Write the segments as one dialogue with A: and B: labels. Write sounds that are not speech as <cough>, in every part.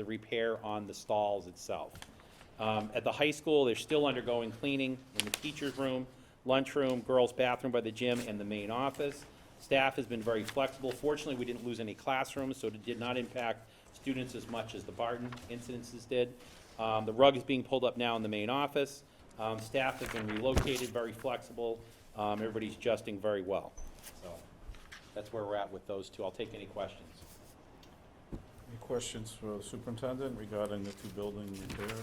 A: the repair on the stalls itself. Um, At the high school, they're still undergoing cleaning in the teacher's room, lunchroom, girls' bathroom by the gym, and the main office. Staff has been very flexible. Fortunately, we didn't lose any classrooms, so it did not impact students as much as the Barton incidences did. Um, The rug is being pulled up now in the main office. Um, Staff have been relocated, very flexible. Um, Everybody's adjusting very well. So that's where we're at with those two. I'll take any questions.
B: Any questions for the superintendent regarding the two building repairs?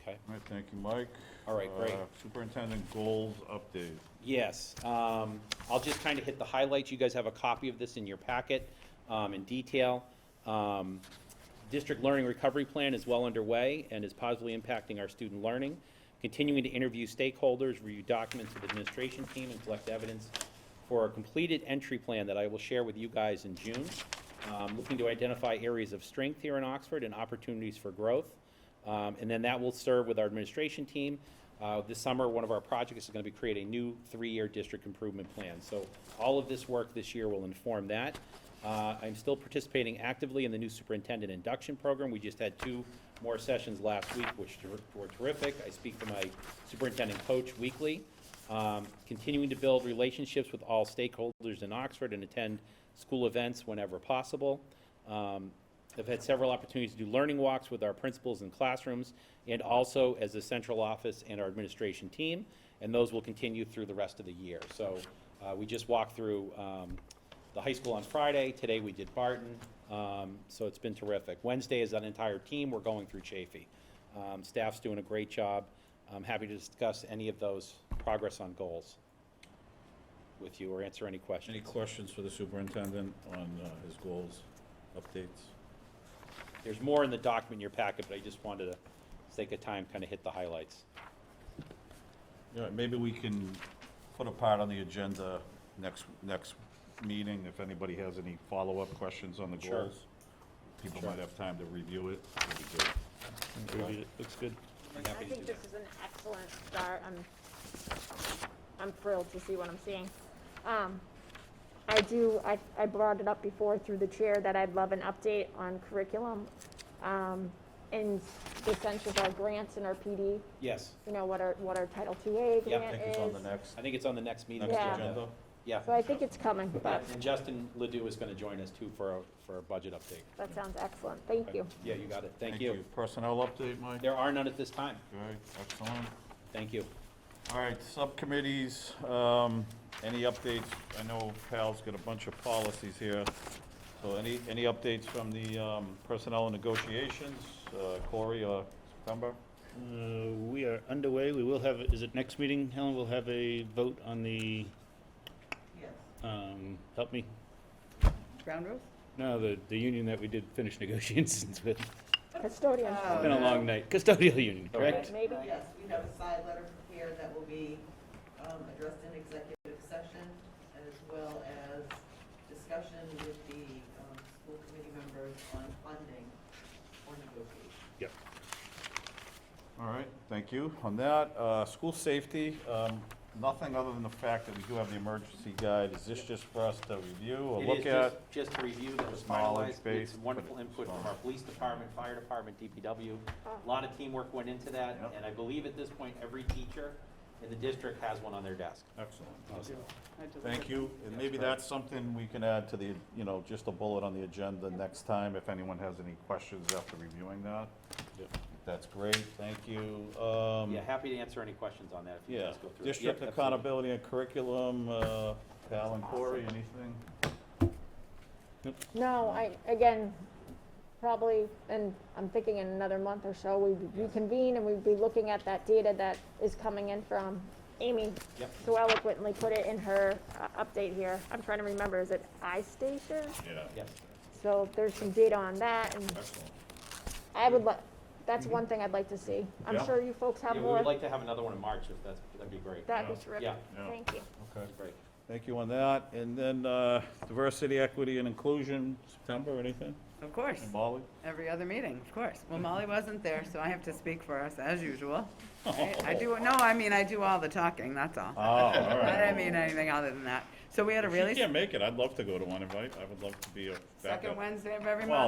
A: Okay?
B: All right, thank you, Mike.
A: All right, great.
B: Uh, Superintendent goals update.
A: Yes, um, I'll just kind of hit the highlights. You guys have a copy of this in your packet, um, in detail. Um, District Learning Recovery Plan is well underway and is positively impacting our student learning. Continuing to interview stakeholders, review documents with administration team, and collect evidence for a completed entry plan that I will share with you guys in June. Um, looking to identify areas of strength here in Oxford and opportunities for growth. Um, and then that will serve with our administration team. Uh, this summer, one of our projects is gonna be create a new three-year district improvement plan. So all of this work this year will inform that. Uh, I'm still participating actively in the new superintendent induction program. We just had two more sessions last week, which ter- were terrific. I speak to my superintendent coach weekly. Um, continuing to build relationships with all stakeholders in Oxford and attend school events whenever possible. Um, I've had several opportunities to do learning walks with our principals in classrooms and also as a central office and our administration team, and those will continue through the rest of the year. So uh, we just walked through um, the high school on Friday, today we did Barton, um, so it's been terrific. Wednesday is an entire team, we're going through Chafee. Um, Staff's doing a great job. I'm happy to discuss any of those progress on goals with you or answer any questions.
B: Any questions for the superintendent on uh, his goals updates?
A: There's more in the document in your packet, but I just wanted to, for sake of time, kind of hit the highlights.
B: Yeah, maybe we can put a part on the agenda next, next meeting, if anybody has any follow-up questions on the
A: Sure.
B: goals. People
A: Sure.
B: might have time to review it. That'd be good.
C: Agreed, it looks good.
A: I'm
D: I
A: happy to do
D: think
A: that.
D: this is an excellent start. I'm, I'm thrilled to see what I'm seeing. Um, I do, I, I brought it up before through the chair that I'd love an update on curriculum. Um, and the sense of our grants and our PD,
A: Yes,
D: you know, what our, what our Title II
A: Yeah, I
B: I
D: grant
B: think
D: is.
B: it's on the next,
A: I think it's on the next meeting.
B: next
D: Yeah.
B: agenda.
A: Yeah.
D: So I think it's coming, but
A: And Justin Ledoux is going to join us too for, a- for a budget update.
D: that sounds excellent. Thank you.
A: Yeah, you got it. Thank you.
B: Personnel update, Mike?
A: There are none at this time.
B: Okay, excellent.
A: Thank you.
B: All right, subcommittees, um, any updates? I know Pal's got a bunch of policies here. So any, any updates from the, um, personnel negotiations, uh, Corey or September?
C: Uh, We are underway, we will have, is it next meeting, Helen, we'll have a vote on the,
E: Yes.
C: um, help me?
E: Ground rules?
C: No, the, the union that we did finish <laughs> negotiations with,
D: Custodian.
E: Oh.
C: been a long night, custodial union, correct?
D: Right, Maybe.
E: Yes, we have a side letter prepared that will be um, addressed in executive session as well as discussion with the um, school committee members on funding or negotiation.
C: Yep.
B: All right, thank you. On that, uh, school safety, um, nothing other than the fact that we do have the emergency guide. Is this just for us to review or
A: It is
B: look
A: just-
B: at?
A: Just to review that was
B: Knowledge
A: finalized.
B: base,
A: It's
B: but
A: wonderful
B: it's
A: input from our
B: knowledge.
A: police department, fire department, DPW. A lot of teamwork went into that,
B: Yep.
A: and I believe at this point, every teacher in the district has one on their desk.
B: Excellent.
A: So,
B: Thank you. And maybe that's something we can add to the, you know, just a bullet on the agenda next time if anyone has any questions after reviewing that. That's great, thank you. Um,
A: Yeah, happy to answer any questions on that if you
B: Yeah,
A: guys go through. it.
B: district
A: Yep, absolutely.
B: accountability and curriculum, uh, Val and Corey, anything?
D: No, I, again, probably, and I'm thinking in another month or so, we reconvene and we'd be looking at that data that is coming in from Amy.
A: Yep.
D: So eloquently put it in her uh, update here. I'm trying to remember, is it iStation?
B: Yeah.
A: Yes.
D: So there's some data on that and
B: Excellent.
D: I would like, that's one thing I'd like to see. I'm
B: Yeah.
D: sure you folks have
A: Mm-hmm. Yeah, we would
D: more.
A: like to have another one in March if that's, that'd be great.
D: That'd
B: Yeah.
D: be terrific.
A: Yeah.
B: Yeah.
D: Thank you.
B: Okay.
A: Great.
B: Thank you on that. And then uh, diversity, equity, and inclusion, September, anything?
E: Of course,
B: And Molly?
E: every other meeting, of course. Well, Molly wasn't there, so I have to speak for us as usual. I do, no, I mean, I do all the talking, that's all.
B: Oh, all
E: I
B: right.
E: didn't mean anything other than that.
F: So we had a
G: If you
F: really
G: can't make it, I'd love to go to one, invite, I would love to be a backup.
B: Second Wednesday of every month.
G: Well,